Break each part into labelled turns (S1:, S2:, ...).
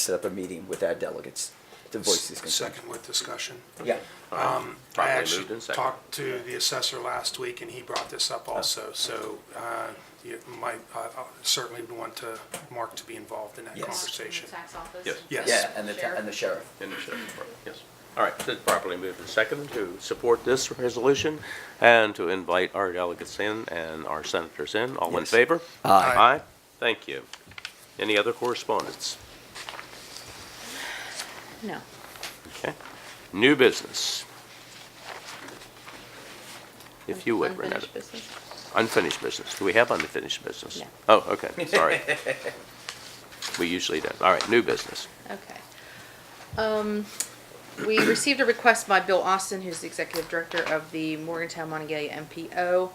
S1: set up a meeting with our delegates to voice these concerns.
S2: Second with discussion.
S1: Yeah,
S2: I
S3: Properly
S2: actually
S3: moved and seconded.
S2: talked to the assessor last week, and he brought this up also, so uh, you might, I I certainly would want to, Mark to be involved in that
S1: Yes.
S2: conversation.
S4: Tax office.
S3: Yes.
S2: Yes.
S1: yeah, and the, and the sheriff.
S3: In the sheriff's department, yes. All right, it's properly moved and seconded to support this resolution and to invite our delegates in and our senators in. All in
S1: Yes.
S3: favor?
S2: Aye.
S3: Aye, thank you. Any other correspondence?
S4: No.
S3: Okay. New business. If you would, Renetta.
S4: Unfinished business.
S3: Unfinished business. Do we have unfinished business?
S4: No.
S3: Oh, okay, sorry. We usually don't. All right, new business.
S4: Okay. Um, we received a request by Bill Austin, who's the executive director of the Morgantown Montague MPO.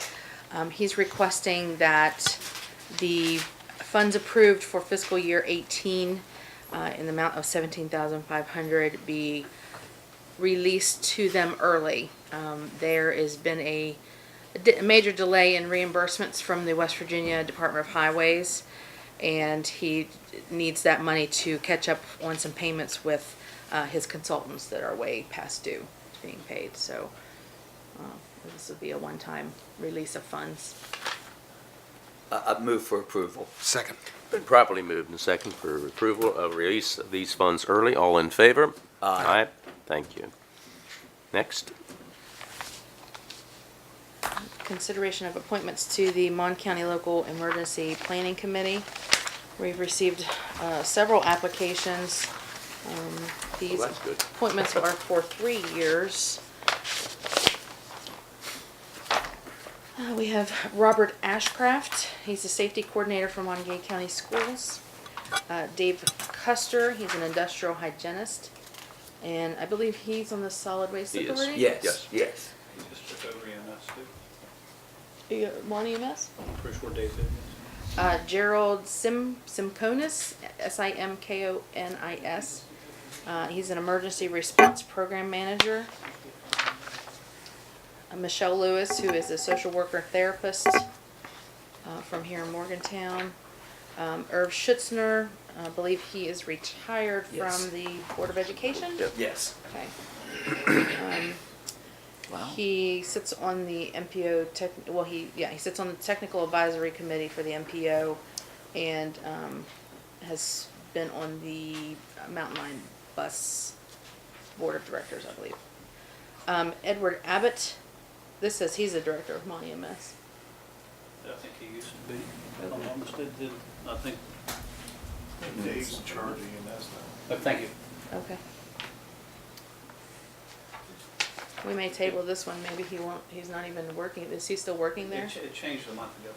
S4: Um, he's requesting that the funds approved for fiscal year eighteen, uh, in the amount of seventeen thousand five hundred be released to them early. Um, there has been a d- major delay in reimbursements from the West Virginia Department of Highways, and he needs that money to catch up on some payments with uh, his consultants that are way past due being paid. So uh, this would be a one-time release of funds.
S1: I, I move for approval.
S2: Second.
S3: Been properly moved and second for approval of release of these funds early. All in favor? Aye. Thank you. Next,
S4: Consideration of appointments to the Mon County Local Emergency Planning Committee. We've received uh, several applications. Um, These
S3: that's good.
S4: appointments are for three years. Uh, We have Robert Ashcraft, he's the safety coordinator for Montague County Schools. Uh, Dave Custer, he's an industrial hygienist, and I believe he's on the Solid Waste
S3: He is.
S4: Authority?
S1: Yes,
S3: Yes.
S1: yes.
S5: Just took over EMS too.
S4: You got Mon EMS?
S5: Pretty short days, isn't it?
S4: Uh, Gerald Sim Simkonis, S I M K O N I S. Uh, he's an emergency response program manager. Uh, Michelle Lewis, who is a social worker therapist uh, from here in Morgantown. Um, Irv Schutzner, I believe he is retired
S1: Yes.
S4: from the Board of Education.
S3: Yep.
S1: Yes.
S4: Okay. Um,
S1: Wow.
S4: He sits on the MPO tech, well, he, yeah, he sits on the technical advisory committee for the MPO and, um, has been on the Mountain Line Bus Board of Directors, I believe. Um, Edward Abbott, this says he's the director of Mon EMS.
S5: I think he used to be, if I'm not mistaken, did- I think.
S6: Dave's charging and that's not.
S5: Oh, thank you.
S4: Okay. We may table this one, maybe he won't, he's not even working, is he still working there?
S5: It ch- It changed a month ago.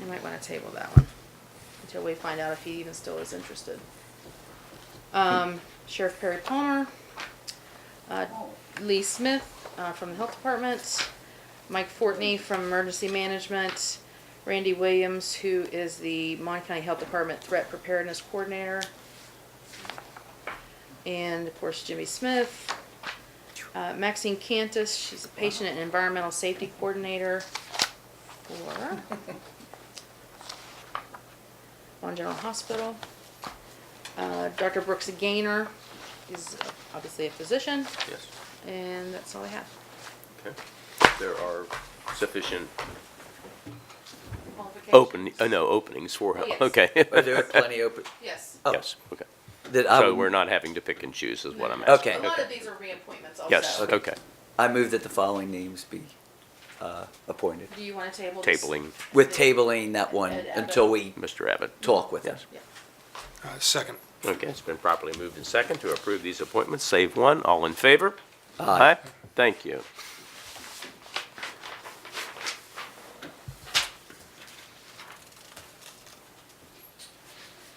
S4: You might wanna table that one until we find out if he even still is interested. Um, Sheriff Perry Palmer, uh, Lee Smith, uh, from the Health Department, Mike Fortney from Emergency Management, Randy Williams, who is the Mon County Health Department Threat Preparedness Coordinator, and of course Jimmy Smith, uh, Maxine Cantus, she's a Patient and Environmental Safety Coordinator for Mon General Hospital. Uh, Dr. Brooks Gaynor is obviously a physician,
S3: yes,
S4: and that's all I have.
S3: okay. There are sufficient open, uh, no, openings for,
S4: Oh, yes.
S3: okay.
S1: Are there plenty open,
S4: Yes.
S1: oh,
S3: Yes, okay.
S1: that I,
S3: So
S1: would-
S3: we're not having to pick and choose is what I'm
S1: Okay.
S3: asking.
S4: A lot of these are reappointments also.
S3: Yes, okay,
S1: I move that the following names be, uh, appointed.
S4: Do you want to table this?
S3: tabling
S1: With tabling that one until we
S3: Mr. Abbott.
S1: talk with them.
S3: Yes.
S4: Yeah.
S2: Uh, Second.
S3: Okay, it's been properly moved and second to approve these appointments, save one. All in favor?
S1: Aye.
S3: Thank you.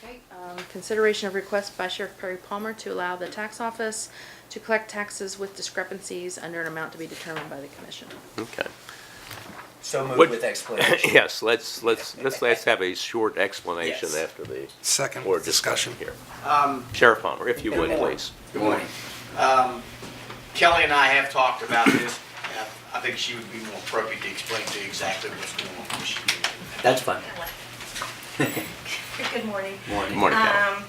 S4: Okay, um, consideration of request by Sheriff Perry Palmer to allow the tax office to collect taxes with discrepancies under an amount to be determined by the commission.
S3: Okay.
S1: So moved
S3: Would-
S1: with explanation.
S3: Yes, let's, let's, let's, let's have a short explanation
S1: Yes.
S3: after the
S2: Second
S3: board discussion
S2: discussion.
S3: here. Sheriff Palmer, if you would, please.
S7: Good morning. Um, Kelly and I have talked about this. and I think she would be more appropriate to explain to you exactly what's going on.
S1: That's fine.
S8: Good morning.
S3: Good Morning, Kelly.
S8: Um,